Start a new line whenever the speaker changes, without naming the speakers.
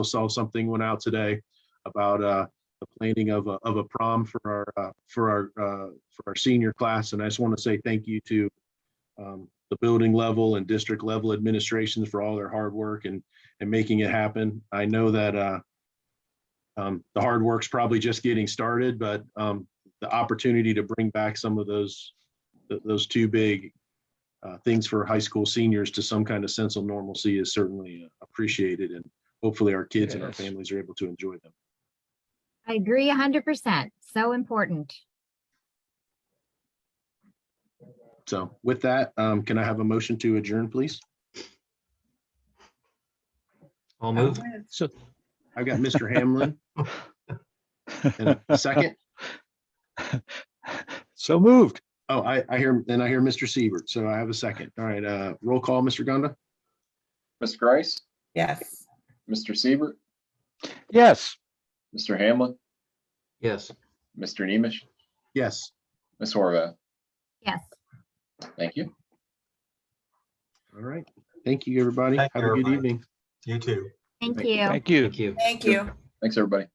saw something went out today about uh, the planning of a, of a prom for our, uh, for our, uh, for our senior class. And I just want to say thank you to um, the building level and district level administrations for all their hard work and, and making it happen. I know that uh, um, the hard work's probably just getting started, but um, the opportunity to bring back some of those, th- those two big uh, things for high school seniors to some kind of sense of normalcy is certainly uh, appreciated and hopefully our kids and our
Yes.
families are able to enjoy them.
I agree hundred percent. So important.
So with that, um, can I have a motion to adjourn, please?
I'll move.
So,
I've got Mr. Hamlin and a second.
so moved.
Oh, I, I hear, and I hear Mr. Siebert. So I have a second. All right, uh, roll call, Mr. Gonda,
Ms. Grice,
Yes.
Mr. Siebert,
Yes.
Mr. Hamlin,
Yes.
Mr. Nemish,
Yes.
Ms. Horvath.
Yes.
Thank you.
All right. Thank you, everybody. Have
Thank you,
a good
everybody.
evening.
You too.
Thank
Thank you.
you.
Thank you.
Thank you.
Thank you.
Thanks, everybody.